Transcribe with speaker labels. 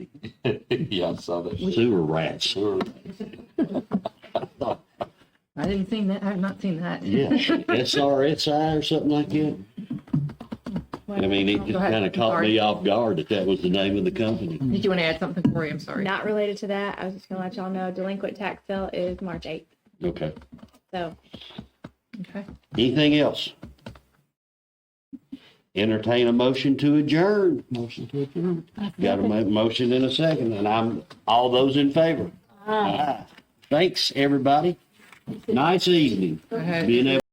Speaker 1: Yeah, I saw that.
Speaker 2: Sewer rats.
Speaker 1: Sure.
Speaker 3: I didn't see that. I've not seen that.
Speaker 2: Yeah, SRSI or something like that. I mean, it just
Speaker 3: Go ahead.
Speaker 2: kind of caught me off guard that that was the name of the company.
Speaker 3: Did you want to add something, Corey? I'm sorry.
Speaker 4: Not related to that. I was just gonna let y'all know delinquent tax sale is March eighth.
Speaker 2: Okay.
Speaker 4: So
Speaker 3: Okay.
Speaker 2: Anything else? Entertain a motion to adjourn.
Speaker 1: Motion to adjourn.
Speaker 2: Got a mo- motion in a second, and I'm, all those in favor? Aye. Thanks, everybody. Nice evening.
Speaker 3: Go ahead.
Speaker 2: Being able